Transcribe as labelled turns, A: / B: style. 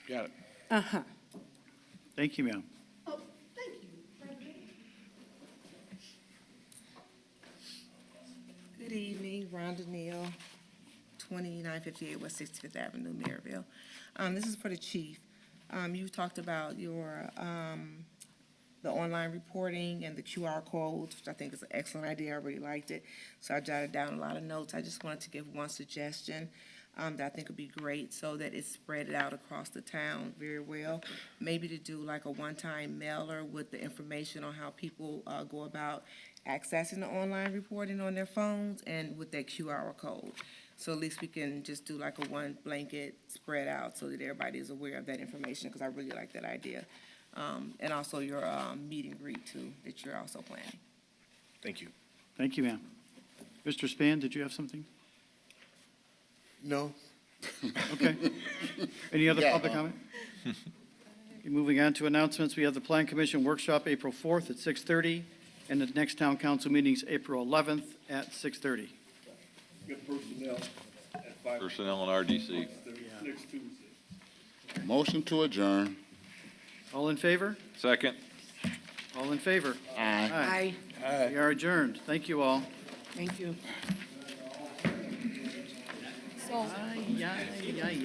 A: Got it.
B: Uh-huh.
A: Thank you, ma'am.
C: Oh, thank you, Frederick.
D: Good evening, Rhonda Neal, 2958 West 65th Avenue, Maryville. Um, This is for the chief. Um, You talked about your, um, the online reporting and the QR codes, which I think is an excellent idea. I really liked it. So I jotted down a lot of notes. I just wanted to give one suggestion um, that I think would be great so that it's spread out across the town very well. Maybe to do like a one-time mailer with the information on how people uh, go about accessing the online reporting on their phones and with that QR code. So at least we can just do like a one blanket spread out so that everybody is aware of that information, because I really like that idea. Um, and also your, um, meet and greet too, that you're also planning.
E: Thank you.
A: Thank you, ma'am. Mr. Span, did you have something?
E: No,
A: Okay. Any other
E: Yeah.
A: public comment? Okay, Moving on to announcements, we have the Plan Commission Workshop April 4th at 6:30, and the next town council meeting's April 11th at 6:30.
F: Get personnel at five,
G: Personnel and RDC.
F: next Tuesday.
E: motion to adjourn.
A: All in favor?
G: Second.
A: All in favor?
E: Aye.
B: Aye,
A: We are adjourned. Thank you all.
B: thank you.
A: Aye, aye, aye.